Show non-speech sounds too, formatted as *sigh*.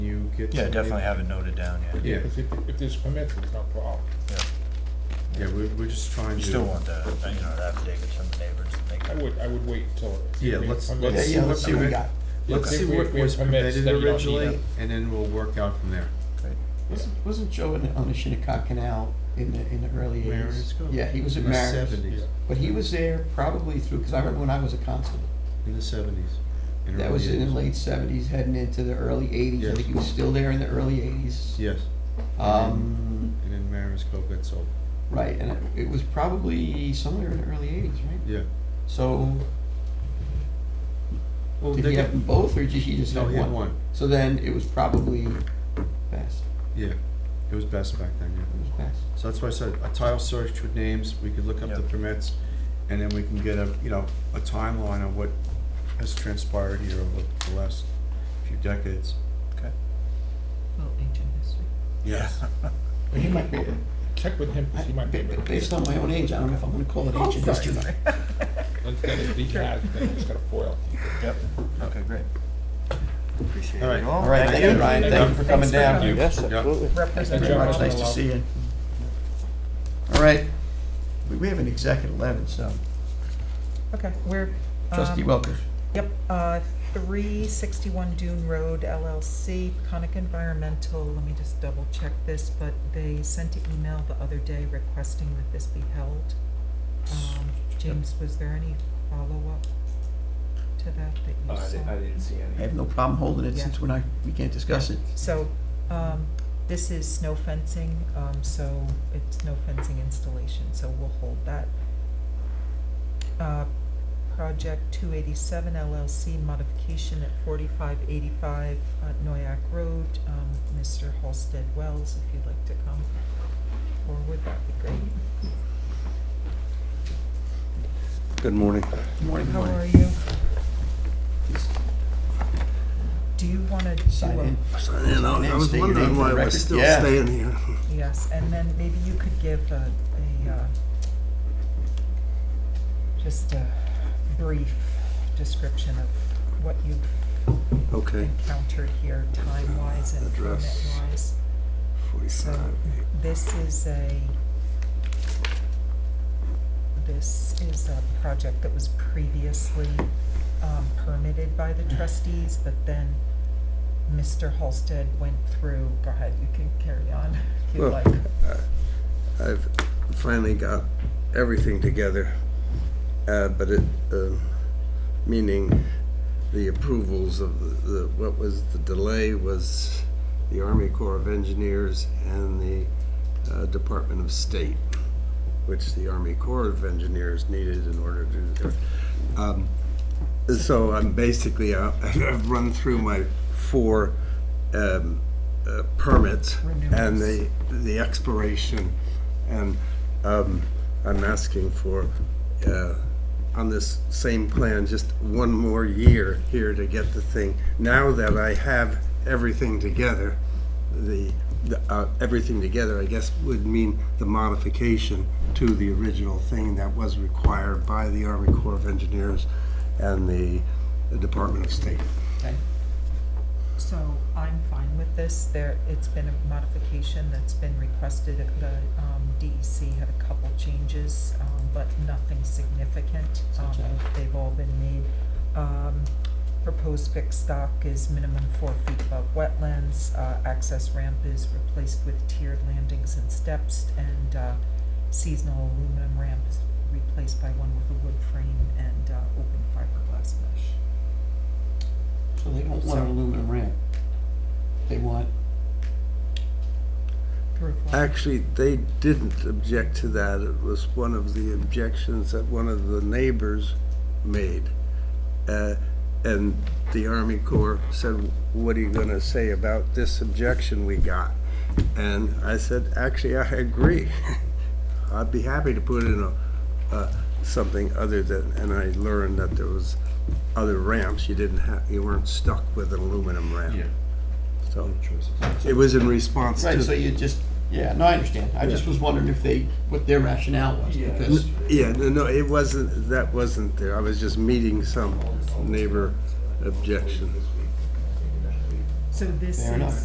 get. Yeah, somebody- definitely have it noted down, yeah. Yeah, If, it- if there's permits, there's no problem. yeah, we're, we're just trying to. You still want the, uh, you know, the affidavits from the neighbors to make I would, I would wait until. Yeah, let's- Yeah, let's see yeah, what let's see what we- we got. Let's If see we- what we was have permits, permitted then you don't need originally, them. and then we'll work out from there. Wasn't, wasn't Joe in- on the Shinnecock Canal in the, in the early Mariners eighties? Cove. Yeah, he was In at the Mariners. seventies, But he was there probably through, because I remember when I was a constable, in the seventies. that was in the late seventies, heading into the early eighties. I Yes. think he was still there in the early eighties. Yes, Um, and then Mariners Cove got sold, right, and it, it was probably somewhere in the early eighties, right? yeah. So, Well, did they he got- have them both, or did he just No, have he had one, So then it was probably best, yeah, it was best back then, it yeah. was best. So that's why I said, a tile search with names, we could look up the Yeah. permits, and then we can get a, you know, a timeline of what has transpired here over the last few decades. Well, ancient history. *laughs* Yes. But he might be, Check with him, 'cause he might be able to. based on my own age, I don't know if I'm gonna call it ancient history. Let's get it, he has, then he's got a foil. Yep, okay, great. All right. All right, thank you, Ryan, thank you for coming Thanks for down. coming. Yes, Yeah. absolutely. Thanks Thank you very much, nice to see you. All right, we, we have an exec at eleven, so, Okay, we're. trustee um, Welker, Yep, uh, three sixty-one Dune Road LLC, Conic Environmental, let me just double check this, but they sent an email the other day requesting that this be held. Um, James, was there any follow-up to that that you saw? see I any. have no problem holding it Yeah. since we're not, we can't discuss it. So, um, this is snow fencing, um, so it's no fencing installation, so we'll hold that. Uh, Project two eighty-seven LLC modification at forty-five eighty-five uh, Noyak Road, um, Mr. Halsted Wells, if you'd like to come forward, that'd be great. Good morning. Good Morning, good How are morning. you? Do you wanna do a? Sign in. You know, I Name, was state your name wondering for why the we're record. still Yeah. staying here. Yes, and then maybe you could give a, a, uh, just a brief description of what you've Okay, encountered here, time-wise and Address. permit-wise. So, forty-five. this is a, this is a project that was previously, um, permitted by Mm-hmm. the trustees, but then Mr. Halsted went through, go ahead, you can carry on if you'd Well, like. I've finally got everything together, uh, but it, um, meaning the approvals of the- the, what was, the delay was the Army Corps of Engineers and the uh, Department of State, which the Army Corps of Engineers needed in order to do their. um, So I'm basically, uh, *laughs* I've run through my four um, uh, permits and the, the expiration. And um, I'm asking for, uh, on this same plan, just one more year here to get the thing. Now that I have everything together, the, the, uh, everything together, I guess, would mean the modification to the original thing that was required by the Army Corps of Engineers and the the Department of State. Okay. So I'm fine with this. There, it's been a modification that's been requested. The um, DEC had a couple changes, um, but nothing significant. Um, Such as? They've all been made. Um, Proposed fixed stock is minimum four feet above wetlands. Uh, Access ramp is replaced with tiered landings and steps, and uh, seasonal aluminum ramp is replaced by one with a wood frame and uh, open fiberglass mesh. So they don't want an So- aluminum ramp. They want, Roof line. Actually, they didn't object to that. It was one of the objections that one of the neighbors made. Uh, And the Army Corps said, what are you going to say about this objection we got? And I said, actually, I agree. *laughs* I'd be happy to put in a, uh, something other than, and I learned that there was other ramps. You didn't have, you weren't stuck with an aluminum ramp. So it was in response to. right, so you just, yeah, no, I understand. I just was wondering if they, what their rationale was, because, Yeah, no, no, it wasn't, that wasn't there. I was just meeting some neighbor objection. So this Fair is. enough.